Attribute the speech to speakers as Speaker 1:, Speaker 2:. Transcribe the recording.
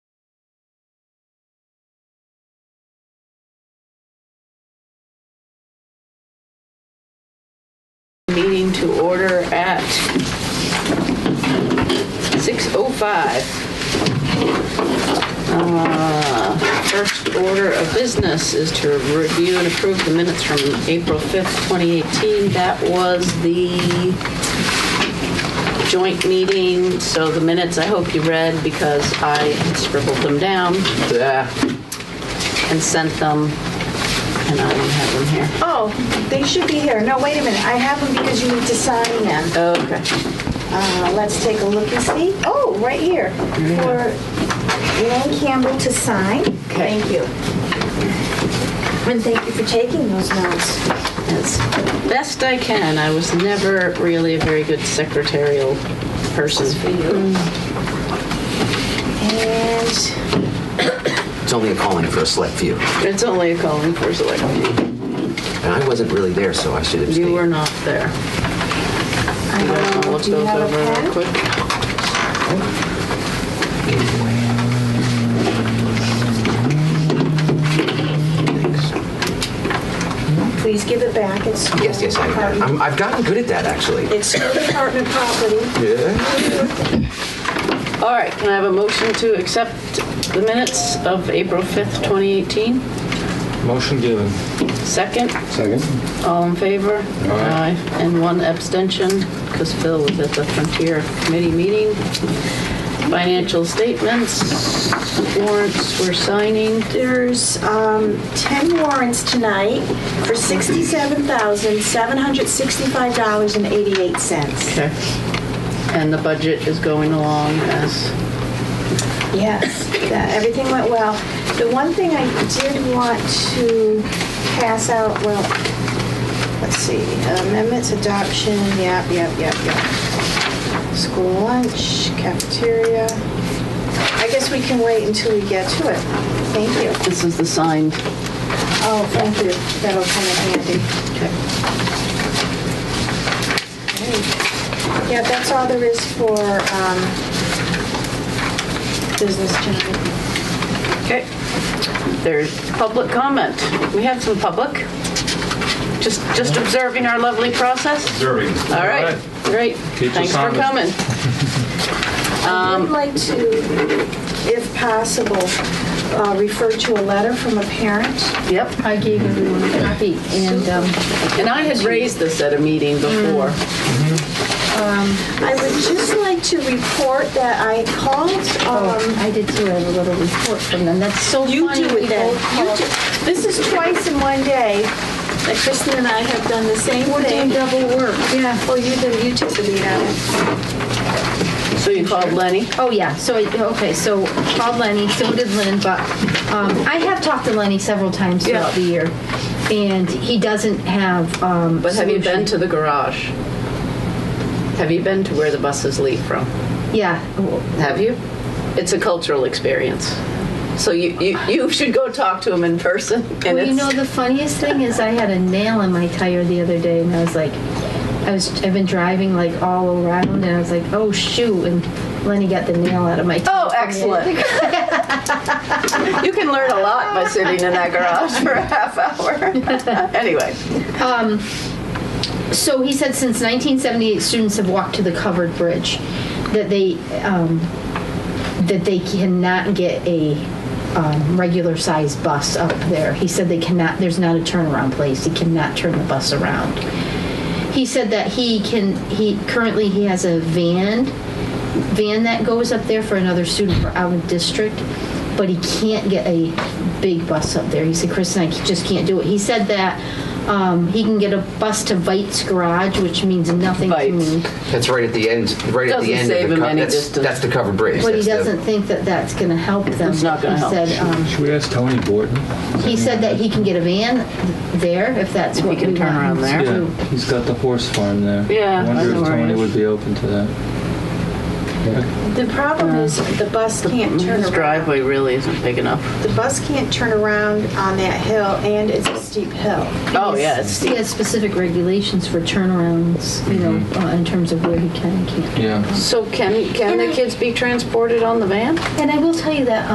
Speaker 1: to order at 6:05. Uh, First order of business is to review and approve the minutes from April 5th, 2018. That was the joint meeting, so the minutes I hope you read because I scribbled them down and sent them, and I don't have them here.
Speaker 2: Oh, they should be here. No, wait a minute. I have them because you need to sign them.
Speaker 1: Okay.
Speaker 2: Uh, let's take a look and see. Oh, right here. For Ann Campbell to sign.
Speaker 1: Okay.
Speaker 2: Thank you. And thank you for taking those notes.
Speaker 1: As best I can. I was never really a very good secretarial person.
Speaker 2: And
Speaker 3: It's only a calling for a select few.
Speaker 1: It's only a calling for select few.
Speaker 3: And I wasn't really there, so I should abstain.
Speaker 1: You were not there. You guys wanna
Speaker 2: I
Speaker 1: look
Speaker 2: do you
Speaker 1: those
Speaker 2: have
Speaker 1: over
Speaker 2: a
Speaker 1: real
Speaker 2: pen?
Speaker 1: quick?
Speaker 2: Please give it back. It's
Speaker 3: Yes, yes, I am. I'm, I've gotten good at that, actually.
Speaker 2: It's school department property.
Speaker 3: Yeah.
Speaker 1: All right, can I have a motion to accept the minutes of April 5th, 2018?
Speaker 4: Motion given.
Speaker 1: Second,
Speaker 4: Second.
Speaker 1: all in favor?
Speaker 4: Aye.
Speaker 1: And one abstention, because Phil was at the Frontier Committee meeting. Financial statements, warrants we're signing.
Speaker 2: There's um, 10 warrants tonight for $67,765.88.
Speaker 1: Okay. And the budget is going along as,
Speaker 2: Yes, that- everything went well. The one thing I did want to pass out, well, let's see, amendments, adoption, yep, yep, yep, yep. School lunch, cafeteria. I guess we can wait until we get to it. Thank you.
Speaker 1: this is the signed.
Speaker 2: Oh, thank you. That'll come in handy.
Speaker 1: Okay.
Speaker 2: Yeah, that's all there is for um, business tonight.
Speaker 1: There's public comment. We have some public. Just, just observing our lovely process.
Speaker 4: Observing.
Speaker 1: All right, great.
Speaker 4: Keep
Speaker 1: Thanks
Speaker 4: us
Speaker 1: for
Speaker 4: honest.
Speaker 1: coming.
Speaker 2: I would like to, if possible, uh, refer to a letter from a parent.
Speaker 1: Yep.
Speaker 5: I gave everyone a copy, and um,
Speaker 1: And I had raised this at a meeting before.
Speaker 2: I would just like to report that I called, um,
Speaker 5: oh, I did too, I have a little report from them. That's so funny.
Speaker 2: Oh, you do
Speaker 5: we
Speaker 2: it then. You
Speaker 5: both called.
Speaker 2: do- This is twice in one day that Kristen and I have done the same
Speaker 5: We're doing
Speaker 2: thing.
Speaker 5: double work.
Speaker 2: Yeah, well, you did, you took the lead on it.
Speaker 1: So you called Lenny?
Speaker 5: Oh, yeah, so, I- okay, so called Lenny, so did Lynn, but um, I have talked to Lenny several times
Speaker 1: Yeah.
Speaker 5: throughout the year, and he doesn't have. um,
Speaker 1: But have you been
Speaker 5: solution.
Speaker 1: to the garage? Have you been to where the buses leave from?
Speaker 5: Yeah,
Speaker 1: Have you? It's a cultural experience. So you, you, you should go talk to him in person. And
Speaker 5: well, you
Speaker 1: it's-
Speaker 5: know, the funniest thing is I had a nail in my tire the other day, and I was like, I was, I've been driving like all around, and I was like, oh shoot, and Lenny got the nail out of my tire.
Speaker 1: Oh, excellent. you can learn a lot by sitting in that garage for a half hour. anyway,
Speaker 5: So he said since 1978, students have walked to the covered bridge, that they um, that they cannot get a um, regular sized bus up there. He said they cannot. There's not a turnaround place. He cannot turn the bus around. He said that he can. He currently he has a van van that goes up there for another student for out of district, but he can't get a big bus up there. He said, Chris and I just can't do it. He said that um, he can get a bus to Vite's Garage, which means nothing to
Speaker 1: Bites.
Speaker 5: me.
Speaker 3: That's right at the end. Right at
Speaker 1: Doesn't
Speaker 3: the end
Speaker 1: save
Speaker 3: of the
Speaker 1: him
Speaker 3: co-
Speaker 1: any
Speaker 3: that's,
Speaker 1: distance.
Speaker 3: that's the covered bridge.
Speaker 5: But he
Speaker 3: That's the-
Speaker 5: doesn't think that that's going to help them.
Speaker 1: It's not gonna
Speaker 5: He
Speaker 1: help.
Speaker 5: said, um,
Speaker 4: Should we ask Tony Borton?
Speaker 5: he said that he can get a van there if that's what
Speaker 1: can
Speaker 5: we
Speaker 1: turn around
Speaker 5: want him to
Speaker 1: there.
Speaker 4: Yeah,
Speaker 5: do.
Speaker 4: he's got the horse farm there.
Speaker 1: Yeah,
Speaker 4: I wonder
Speaker 1: I know
Speaker 4: if
Speaker 1: where it
Speaker 4: Tony
Speaker 1: is.
Speaker 4: would be open to that.
Speaker 2: The problem is the bus can't turn
Speaker 1: his
Speaker 2: around.
Speaker 1: driveway really isn't big enough.
Speaker 2: The bus can't turn around on that hill, and it's a steep hill.
Speaker 1: Oh, yeah, it's
Speaker 5: He has specific regulations for turnarounds, you know,
Speaker 1: Mm-hmm.
Speaker 5: uh, in terms of where he can and can't.
Speaker 4: Yeah.
Speaker 1: So can, can the kids be transported on the van?
Speaker 5: And I will tell you that